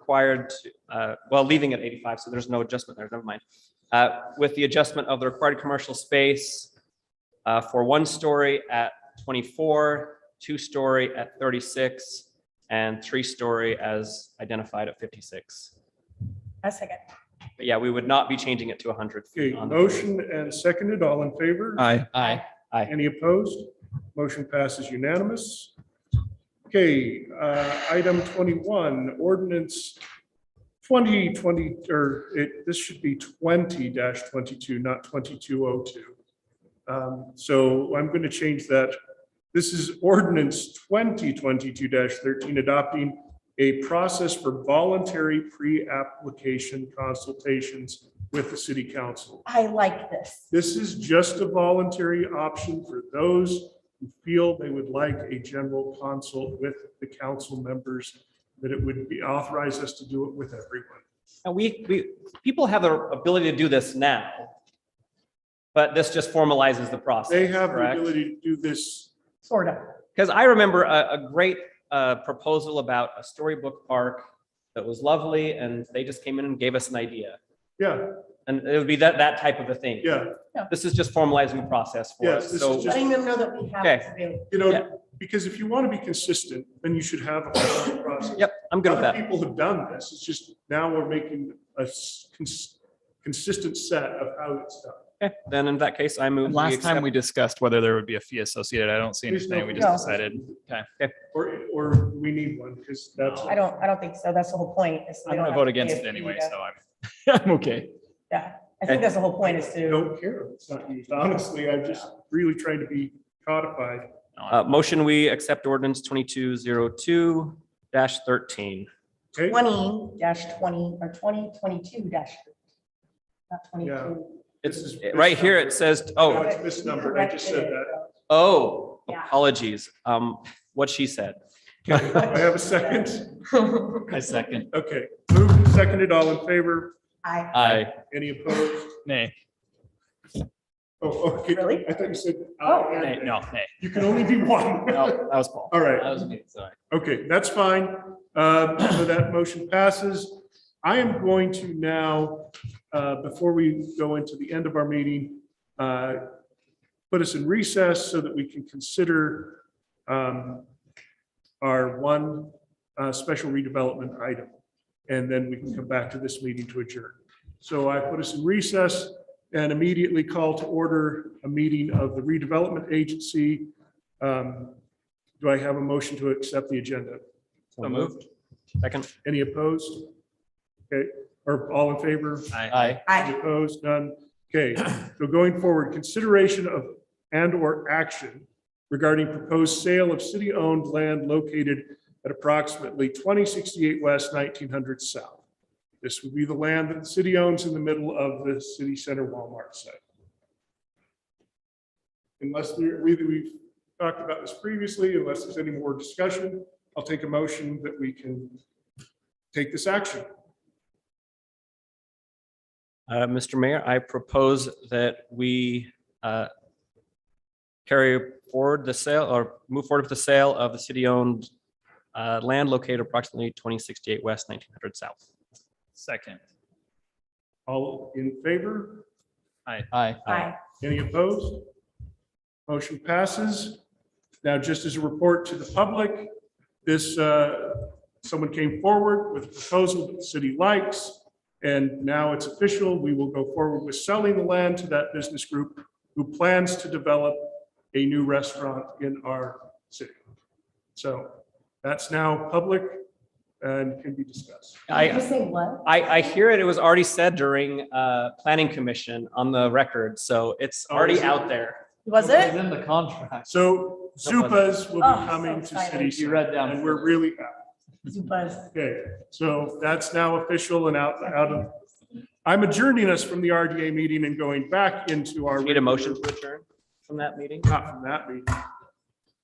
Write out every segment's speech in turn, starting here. required, to- uh, well, leaving at 85, so there's no adjustment there, never mind. Uh, With the adjustment of the required commercial space uh, for one story at 24, two story at 36, and three story as identified at 56. A second. But yeah, we would not be changing it to 100. Okay, feet on the- motion and seconded, all in favor? Aye. Aye. Aye. Any opposed? Motion passes unanimous. Okay, uh, item twenty-one, ordinance twenty twenty, or it, this should be twenty twenty-two, not twenty-two oh two. Um, So I'm going to change that. This is ordinance twenty twenty-two thirteen, adopting a process for voluntary pre-application consultations with the city council. I like this. This is just a voluntary option for those who feel they would like a general consult with the council members, that it would be authorized us to do it with everyone. And we, we, people have the ability to do this now, but this just formalizes the process. They have the correct? ability to do this. Sort of. Because I remember a, a great uh, proposal about a storybook park that was lovely, and they just came in and gave us an idea. Yeah, And it would be that, that type of a thing. yeah. This is just formalizing the process for Yes, us. this is So, just- Letting them know that we have. Okay. this available. You Yeah. know, because if you want to be consistent, then you should have a formal process. yep, I'm good with Other that. people have done this. It's just now we're making a s- cons- consistent set of how it's done. Okay, Then in that case, I move. Last time accept- we discussed whether there would be a fee associated. I don't see There's no anything. We just fee. decided. Or, or we need one because that's. I don't, I don't think so. That's the whole point. is they I'm don't gonna have vote to against pay it a fee anyway, to- so I'm, I'm okay. Yeah, I think that's the whole point is I to, don't care. if It's not used. Honestly, I'm just really trying to be codified. Uh, motion, we accept ordinance twenty-two zero two dash thirteen. Okay, twenty twenty, or twenty twenty-two dash. Not twenty-two. It's, This is- right here, it says, No, oh, it's misnumbered. I just said that. oh, Yeah. apologies, um, what she said. Okay, I have a second. I second. Okay, moved and seconded, all in favor, I, Uh, I, any opposed? Nay, Oh, okay. Really? I thought you said. Oh. uh, nay, and- no, nay. You can only be one. No, that was Paul. All right. That was me, sorry. Okay, that's fine. Um, So that motion passes. I am going to now, uh, before we go into the end of our meeting, uh, put us in recess so that we can consider um, our one uh, special redevelopment item. And then we can come back to this meeting to adjourn. So I put us in recess and immediately call to order a meeting of the redevelopment agency. Um, do I have a motion to accept the agenda? so moved. Second, Any opposed? Okay, or all in favor? I. Any I, Opposed, none. Okay, so going forward, consideration of and/or action regarding proposed sale of city-owned land located at approximately 2068 West, 1900 South. This would be the land that the city owns in the middle of the city center Walmart site. Unless there, we, we've talked about this previously, unless there's any more discussion, I'll take a motion that we can take this action. Uh, Mr. Mayor, I propose that we uh, carry forward the sale or move forward with the sale of the city-owned uh, land located approximately 2068 West, 1900 South. Second. All in favor? Aye. Aye. I, Any opposed? Motion passes. Now, just as a report to the public, this, uh, someone came forward with a proposal that the city likes, and now it's official. We will go forward with selling the land to that business group who plans to develop a new restaurant in our city. So that's now public and can be discussed. did I, you say what? I, I hear it, it was already said during uh, Planning Commission on the record, so it's Oh, already is it? out there. Was it? in the contract. So Zupas will Oh, so be coming to excited. city. You read down And we're really happy. Zupas. Okay, so that's now official and out, out of, I'm adjourning us from the RDA meeting and going back into our. Need a motion to adjourn from that meeting? Not from that meeting.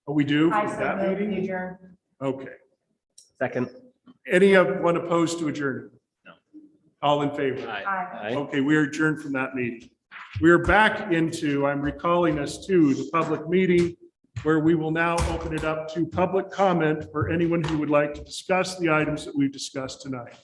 Oh, we do? I From that said, meeting? adjourn. Okay. Second. Any of one opposed to adjourn? No. All in favor? Aye. I. Aye. Okay, we are adjourned from that meeting. We are back into, I'm recalling us to the public meeting. where we will now open it up to public comment for anyone who would like to discuss the items that we've discussed tonight.